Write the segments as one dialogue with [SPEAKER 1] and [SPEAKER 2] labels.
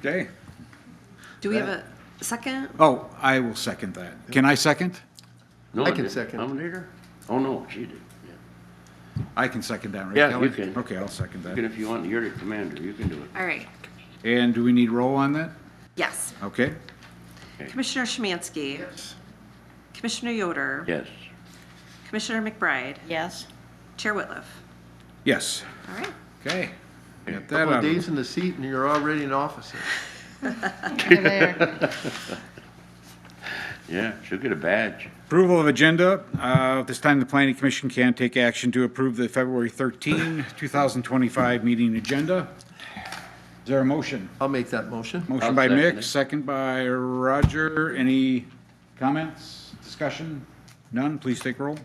[SPEAKER 1] Okay.
[SPEAKER 2] Do we have a second?
[SPEAKER 1] Oh, I will second that. Can I second?
[SPEAKER 3] No,
[SPEAKER 4] I can
[SPEAKER 3] didn't.
[SPEAKER 4] second.
[SPEAKER 3] Nominator? Oh, no, she did. yeah.
[SPEAKER 1] I can second that, right,
[SPEAKER 3] Yeah,
[SPEAKER 1] Kelly?
[SPEAKER 3] you can.
[SPEAKER 1] Okay, I'll second
[SPEAKER 3] Even
[SPEAKER 1] that.
[SPEAKER 3] if you want, you're the commander, you can do it.
[SPEAKER 2] All right,
[SPEAKER 1] And do we need roll on that?
[SPEAKER 2] yes.
[SPEAKER 1] Okay.
[SPEAKER 2] Commissioner Szymanski. Commissioner Yoder.
[SPEAKER 3] Yes.
[SPEAKER 2] Commissioner McBride.
[SPEAKER 5] Yes.
[SPEAKER 2] Chair Whitliff.
[SPEAKER 1] Yes.
[SPEAKER 2] All right.
[SPEAKER 1] Okay. Get that
[SPEAKER 4] Couple of
[SPEAKER 1] out of
[SPEAKER 4] days in the seat and you're already an officer.
[SPEAKER 3] Yeah, she'll get a badge.
[SPEAKER 1] Approval of agenda. Uh, At this time, the planning commission can take action to approve the February 13, 2025 meeting agenda. Is there a motion?
[SPEAKER 4] I'll make that motion.
[SPEAKER 1] Motion
[SPEAKER 3] I'll
[SPEAKER 1] by
[SPEAKER 3] second
[SPEAKER 1] Mick,
[SPEAKER 3] it.
[SPEAKER 1] second by Roger. Any comments, discussion? None? Please take roll.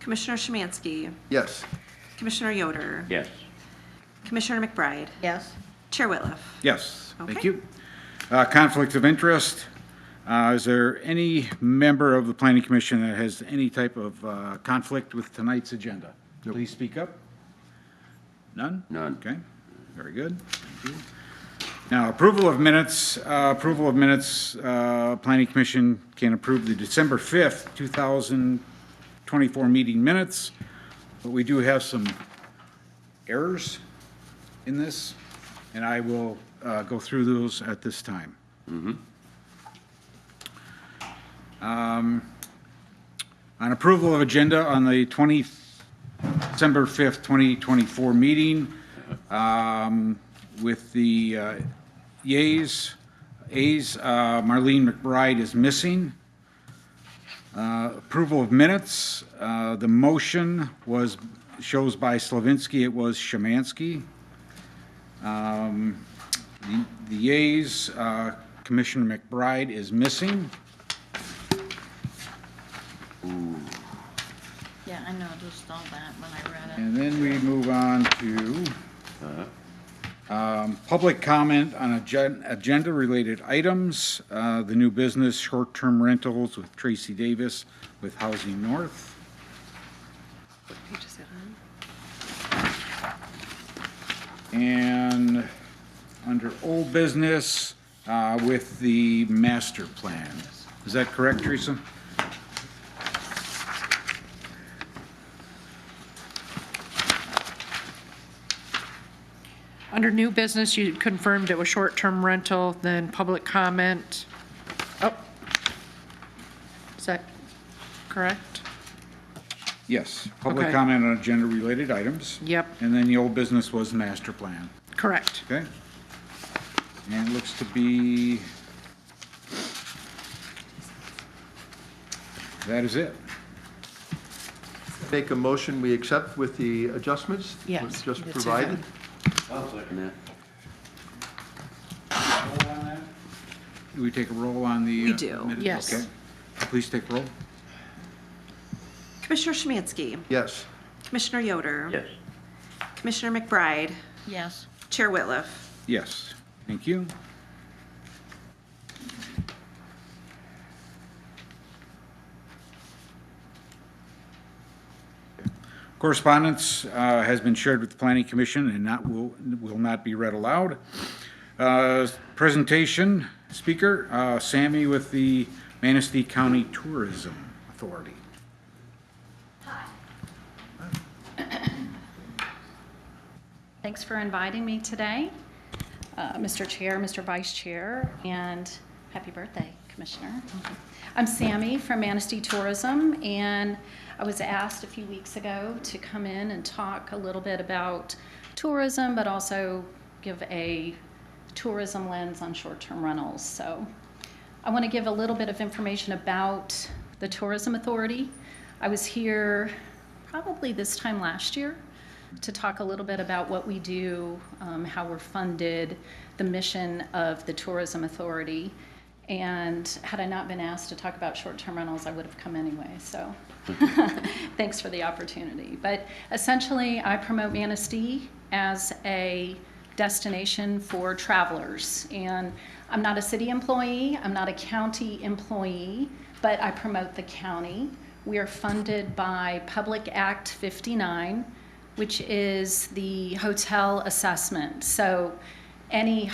[SPEAKER 2] Commissioner Szymanski.
[SPEAKER 4] Yes.
[SPEAKER 2] Commissioner Yoder.
[SPEAKER 3] Yes.
[SPEAKER 2] Commissioner McBride.
[SPEAKER 5] Yes.
[SPEAKER 2] Chair Whitliff.
[SPEAKER 1] Yes, thank
[SPEAKER 2] Okay.
[SPEAKER 1] you. Uh, Conflict of interest. Uh, Is there any member of the planning commission that has any type of uh, conflict with tonight's agenda? Please speak up. None?
[SPEAKER 3] None.
[SPEAKER 1] Okay, very good. Thank you. Now, approval of minutes, uh, approval of minutes, uh, planning commission can approve the December 5th, 2024 meeting minutes, but we do have some errors in this, and I will uh, go through those at this time. Um, On approval of agenda on the 20, December 5th, 2024 meeting, um, with the uh, yeas, ayes, uh, Marlene McBride is missing. Uh, Approval of minutes, uh, the motion was, shows by Slavinsky, it was Shemansky. Um, The the yeas, uh, Commissioner McBride is missing.
[SPEAKER 5] Yeah, I noticed all that when I read it.
[SPEAKER 1] And then we move on to um, public comment on agen- agenda-related items, uh, the new business, short-term rentals with Tracy Davis with Housing North. And under old business uh, with the master plan. Is that correct, Teresa?
[SPEAKER 6] Under new business, you confirmed it was short-term rental, then public comment. Oh. Is that correct?
[SPEAKER 1] Yes, public
[SPEAKER 6] Okay.
[SPEAKER 1] comment on agenda-related items.
[SPEAKER 6] Yep.
[SPEAKER 1] And then the old business was master plan,
[SPEAKER 6] Correct.
[SPEAKER 1] okay? And it looks to be... That is it.
[SPEAKER 4] Make a motion we accept with the adjustments?
[SPEAKER 6] Yes,
[SPEAKER 4] Just
[SPEAKER 6] it's
[SPEAKER 4] provided?
[SPEAKER 3] I'll second
[SPEAKER 1] Do we take a roll on the...
[SPEAKER 2] We
[SPEAKER 1] uh,
[SPEAKER 2] do.
[SPEAKER 1] minute?
[SPEAKER 6] Yes.
[SPEAKER 1] Okay. Please take roll.
[SPEAKER 2] Commissioner Szymanski.
[SPEAKER 4] Yes.
[SPEAKER 2] Commissioner Yoder.
[SPEAKER 3] Yes.
[SPEAKER 2] Commissioner McBride.
[SPEAKER 5] Yes.
[SPEAKER 2] Chair Whitliff.
[SPEAKER 1] Yes, thank you. Correspondence uh, has been shared with the Planning Commission and not, will, will not be read aloud. Uh, Presentation, speaker, uh, Sammy with the Manistee County Tourism Authority.
[SPEAKER 7] Thanks for inviting me today, uh, Mr. Chair, Mr. Vice Chair, and happy birthday, Commissioner. I'm Sammy from Manistee Tourism, and I was asked a few weeks ago to come in and talk a little bit about tourism, but also give a tourism lens on short-term rentals. So I want to give a little bit of information about the Tourism Authority. I was here probably this time last year to talk a little bit about what we do, um, how we're funded, the mission of the Tourism Authority. And had I not been asked to talk about short-term rentals, I would have come anyway, so thanks for the opportunity. But essentially, I promote Manistee as a destination for travelers. And I'm not a city employee, I'm not a county employee, but I promote the county. We are funded by Public Act 59, which is the hotel assessment. So any